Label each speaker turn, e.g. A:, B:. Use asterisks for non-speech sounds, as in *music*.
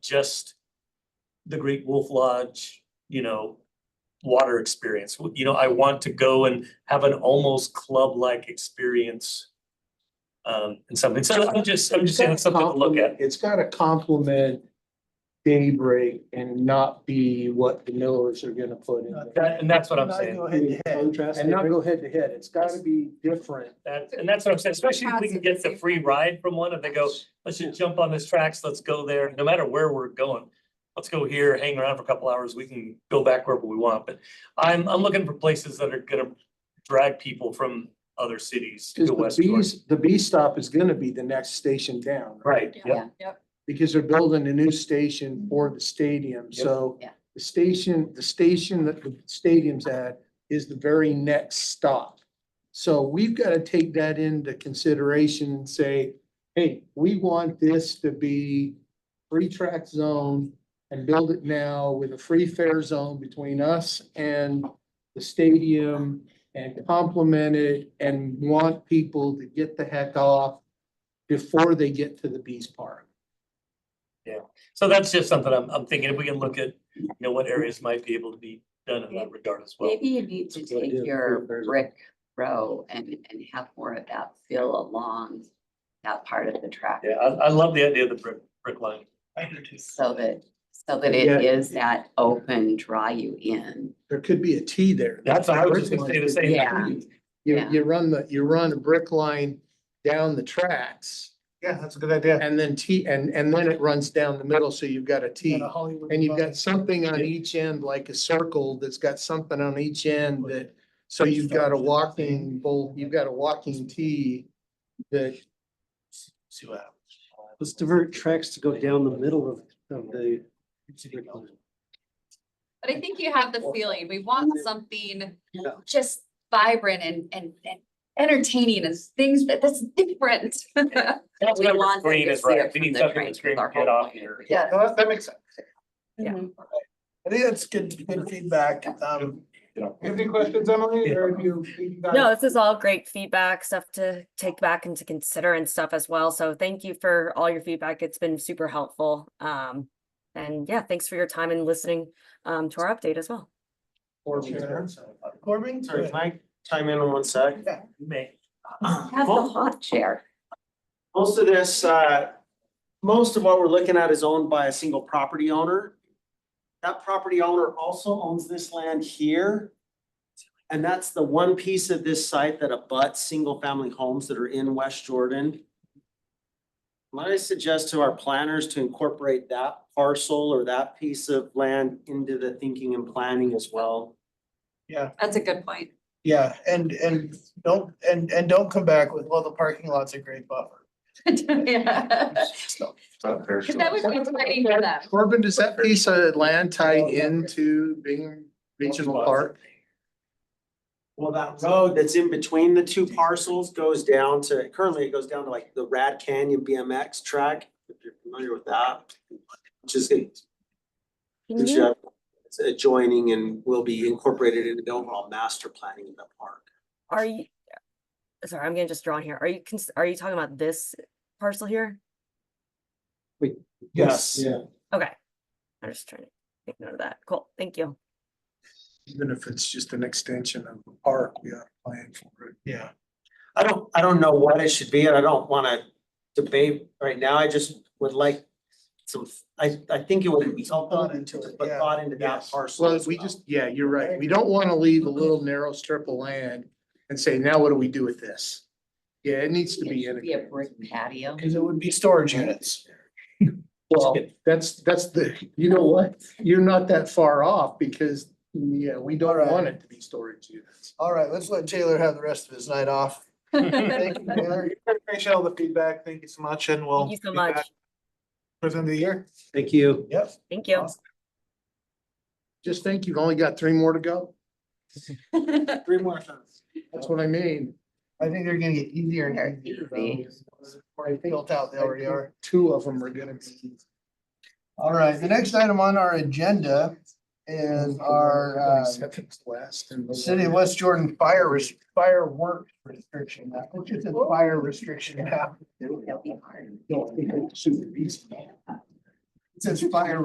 A: just the Great Wolf Lodge, you know, water experience. W- You know, I want to go and have an almost club-like experience. Um, and something, so I'm just, I'm just saying it's something to look at.
B: It's gotta complement daybreak and not be what the Millers are gonna put in. there.
A: That, and that's what I'm
C: Not
A: saying.
C: go head to head.
B: Contrast, and not go head to head, it's gotta be different.
A: That, and that's what I'm saying, especially if we can get the free ride from one and they go, let's just jump on this tracks, let's go there, no matter where we're going. Let's go here, hang around for a couple hours, we can go back wherever we want, but I'm, I'm looking for places that are gonna drag people from other cities to
B: Cause the
A: West Jordan.
B: B's, the B stop is gonna be the next station down.
A: Right, yeah,
D: Yeah, yep,
B: Because they're building a new station for the stadium,
A: Yep.
B: so.
D: Yeah.
B: The station, the station that the stadium's at is the very next stop. So we've gotta take that into consideration and say, hey, we want this to be free track zone and build it now with a free fair zone between us and the stadium and complement it and want people to get the heck off before they get to the Beast Park.
A: so that's just something I'm, I'm thinking, if we can look at, you know, what areas might be able to be done in that regard as well.
D: maybe you need to
B: That's a good idea.
D: take your
B: There's-
D: brick row and, and have more of that feel along that part of the track.
A: Yeah, I, I love the idea of the brick, brick line.
C: I do too.
D: So that, so that
B: Yeah.
D: it is that open, draw you in.
B: There could be a T there.
A: That's, I was just gonna say the same. thing.
D: Yeah.
B: You,
D: Yeah.
B: you run the, you run a brick line down the tracks
C: Yeah, that's a good idea.
B: and then T, and, and then it runs down the middle, so you've got a T. And you've got something on each end, like a circle that's got something on each end that, so you've got a walking bowl, you've got a walking T that,
E: Let's divert tracks to go down the middle of, of the.
F: But I think you have the feeling, we want something
E: Yeah.
F: just vibrant and, and, and entertaining and things that, that's different. *laughs*
D: We
A: Councilmember
D: want them
A: Green
D: to
A: is
D: see
A: right.
D: it
A: We
D: from
A: need
D: the
A: something
D: train
A: that's
D: with
A: green
D: our
A: to get
D: whole
A: off
D: point.
A: here.
D: Yeah.
C: No, that, that makes sense.
D: Yeah.
C: I think that's good, good feedback. Um,
A: Yeah.
C: you have any questions, Emily, or have you?
G: No, this is all great feedback, stuff to take back and to consider and stuff as well. So thank you for all your feedback. It's been super helpful. Um, and yeah, thanks for your time and listening um to our update as well.
C: Corbin?
H: Sorry, can I chime in on one sec?
C: Yeah.
H: You may.
D: Have the hot chair.
H: Most of this, uh, most of what we're looking at is owned by a single property owner. That property owner also owns this land here. And that's the one piece of this site that abuts single-family homes that are in West Jordan. Might I suggest to our planners to incorporate that parcel or that piece of land into the thinking and planning as well?
F: That's a good point. *laughs*
C: Yeah, and, and don't, and, and don't come back with, well, the parking lot's a great
D: *laughs*
C: buffer.
F: Yeah. Cause that was exciting for them.
B: Corbin, does that piece of land tie into Bing Regional Park?
H: Well, that road that's in between the two parcels goes down to, currently it goes down to like the Rad Canyon BMX track, if you're familiar with that. Which is, which
G: Can
H: is,
G: you-
H: uh, it's adjoining and will be incorporated into the overall master planning of the park.
G: Are you? Sorry, I'm gonna just draw on here. Are you, cons- are you talking about this parcel here?
C: Yes.
G: Okay. I'm just trying to make note of that. Cool, thank you.
B: Even if it's just an extension of the park, we are planning for it.
C: Yeah.
H: I don't, I don't know what it should be, and I don't wanna debate right now, I just would like some, I, I think it would be helpful
C: Thought into it,
H: but
C: yeah,
H: thought into that
C: yes.
H: parcel
B: Well,
H: as
B: we
H: well.
B: just, yeah, you're right. We don't want to leave a little narrow strip of land and say, now what do we do with this? Yeah, it needs to
D: It
B: be
D: should Be a
B: integrated.
D: brick patio.
C: Cause it would be storage units.
B: Well, that's, that's the, you know what? You're not that far off because, yeah, we don't
C: Alright.
B: want it to be storage units.
C: All right, let's let Taylor have the rest of his night off. Thank you, Taylor. Appreciate all the feedback. Thank you so much and we'll.
G: Thank you so
C: be back
G: much.
C: For the end of the year.
E: Thank you.
C: Yep.
G: Thank you.
B: Just think you've only got three more to go.
H: Three more things.
B: That's what I mean.
C: I think they're gonna get easier
D: They're
C: and easier.
D: easy.
C: though. They're Built out, they already are.
B: Two of them are gonna be.
C: All right, the next item on our agenda is our uh,
B: Seventh Last and. the
C: City of
B: one-
C: West Jordan fire res- firework restriction. map, Which is a fire restriction map.
D: It'll be hard.
B: No, I think it's super easy.
C: Says fire